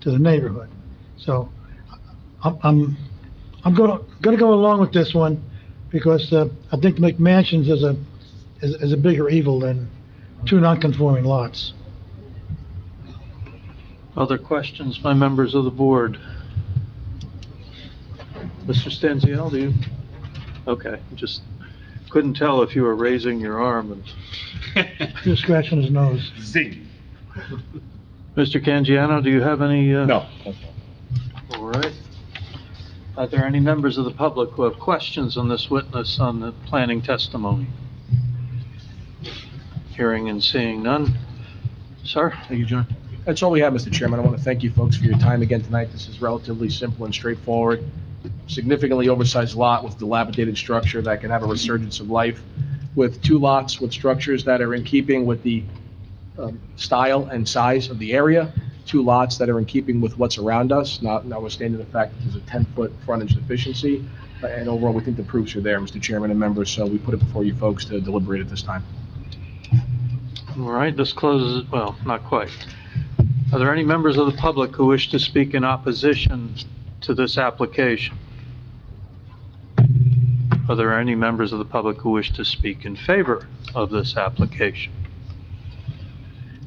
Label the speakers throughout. Speaker 1: to the neighborhood. So I'm, I'm, I'm gonna, gonna go along with this one because, uh, I think McMansions is a, is, is a bigger evil than two non-conforming lots.
Speaker 2: Other questions by members of the board? Mr. Stenziel, do you? Okay, just couldn't tell if you were raising your arm. and-
Speaker 1: Just scratching his nose.
Speaker 3: Zing.
Speaker 2: Mr. Canjiano, do you have any? uh,
Speaker 3: No.
Speaker 2: All right. Are there any members of the public who have questions on this witness on the planning testimony? Hearing and seeing none. Sir?
Speaker 4: Thank you, John. That's all we have, Mr. Chairman. I want to thank you folks for your time again tonight. This is relatively simple and straightforward. Significantly oversized lot with dilapidated structure that can have a resurgence of life with two lots with structures that are in keeping with the um, style and size of the area, two lots that are in keeping with what's around us, not notwithstanding the fact that there's a 10-foot frontage deficiency. uh, And overall, we think the proofs are there, Mr. Chairman and members, so we put it before you folks to deliberate at this time.
Speaker 2: All right, this closes, well, not quite. Are there any members of the public who wish to speak in opposition to this application? Are there any members of the public who wish to speak in favor of this application?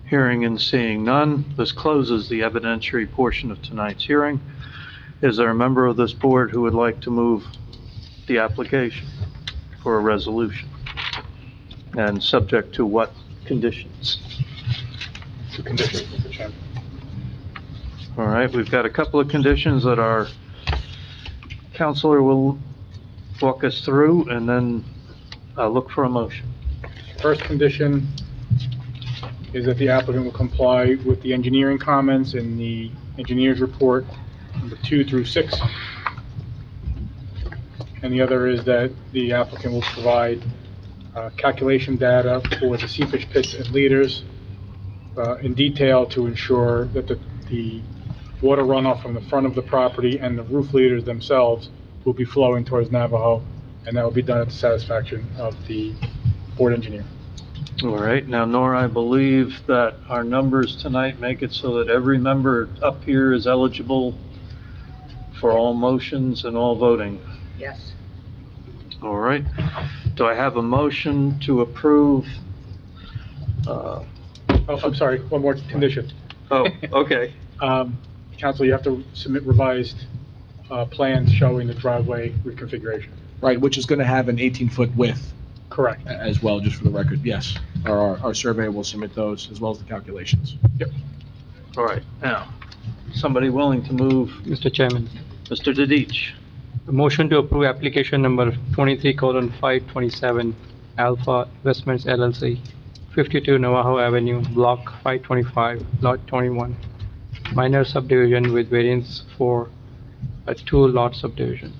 Speaker 2: Hearing and seeing none, this closes the evidentiary portion of tonight's hearing. Is there a member of this board who would like to move the application for a resolution? And subject to what conditions?
Speaker 3: Two conditions, Mr. Chairman.
Speaker 2: All right, we've got a couple of conditions that our counselor will walk us through, and then uh, look for a motion.
Speaker 5: First condition is that the applicant will comply with the engineering comments in the engineer's report, number two through six. And the other is that the applicant will provide uh, calculation data for the seepage pits and leaders uh, in detail to ensure that the, the water runoff from the front of the property and the roof leaders themselves will be flowing towards Navajo, and that will be done at the satisfaction of the board engineer.
Speaker 2: All right, now Nora, I believe that our numbers tonight make it so that every member up here is eligible for all motions and all voting.
Speaker 6: Yes.
Speaker 2: All right, do I have a motion to approve? uh,
Speaker 5: Oh, I'm sorry, one more condition.
Speaker 2: Oh, okay.
Speaker 5: Um, Council, you have to submit revised uh, plans showing the driveway reconfiguration.
Speaker 4: Right, which is going to have an 18-foot width
Speaker 5: Correct.
Speaker 4: a- as well, just for the record, yes. Our- Our, our surveyor will submit those as well as the calculations.
Speaker 2: All right, now, somebody willing to move?
Speaker 7: Mr. Chairman,
Speaker 2: Mr. Didich?
Speaker 7: a motion to approve application number twenty-three colon five twenty-seven Alpha Investments LLC, fifty-two Navajo Avenue, block five twenty-five, lot twenty-one, minor subdivision with variance for a two-lot subdivision,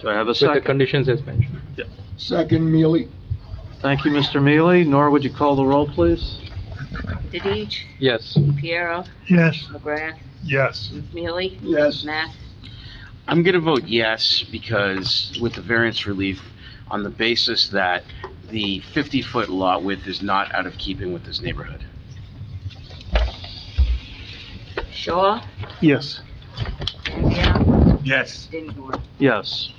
Speaker 2: Do I have a
Speaker 7: with the
Speaker 2: second?
Speaker 7: conditions as mentioned.
Speaker 8: Second, Mealy.
Speaker 2: Thank you, Mr. Mealy. Nora, would you call the roll, please?
Speaker 6: Didich,
Speaker 7: Yes.
Speaker 6: Piero,
Speaker 1: Yes,
Speaker 6: McGrath,
Speaker 3: Yes.
Speaker 6: Mealy,
Speaker 8: Yes.
Speaker 6: Matt,
Speaker 9: I'm going to vote yes because with the variance relief on the basis that the 50-foot lot width is not out of keeping with this neighborhood.
Speaker 6: Shaw,
Speaker 5: Yes.
Speaker 6: Agia,
Speaker 3: Yes.
Speaker 6: Dinsmore.
Speaker 2: Yes.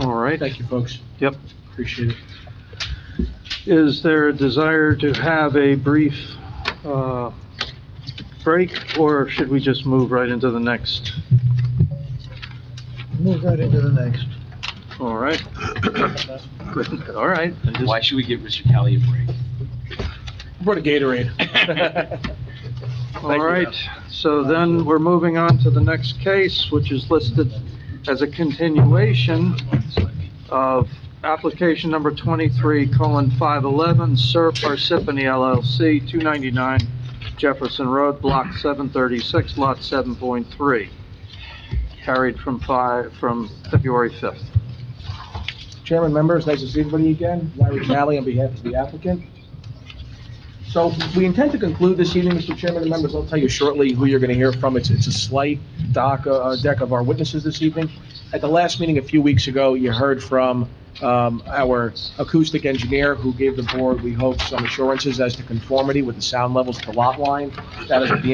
Speaker 2: All right.
Speaker 4: Thank you, folks.
Speaker 2: Yep.
Speaker 4: Appreciate it.
Speaker 2: Is there a desire to have a brief uh, break, or should we just move right into the next?
Speaker 1: move right into the next.
Speaker 2: All right. Good. All right. I just-
Speaker 9: Why should we give Mr. Kelly a break?
Speaker 4: Brought a Gatorade.
Speaker 2: All right, so then we're moving on to the next case, which is listed as a continuation of application number 23 colon 511, Sir Parsippany LLC, 299 Jefferson Road, Block 736, Lot 7.3, carried from 5, from February 5th.
Speaker 4: Chairman, members, nice to see everybody again. Larry Nally on behalf of the applicant. So we intend to conclude this evening, Mr. Chairman and members. I'll tell you shortly who you're going to hear from. It's, it's a slight doc, uh, deck of our witnesses this evening. At the last meeting a few weeks ago, you heard from, um, our acoustic engineer who gave the board, we hope, some assurances as to conformity with the sound levels to lot line. That is at the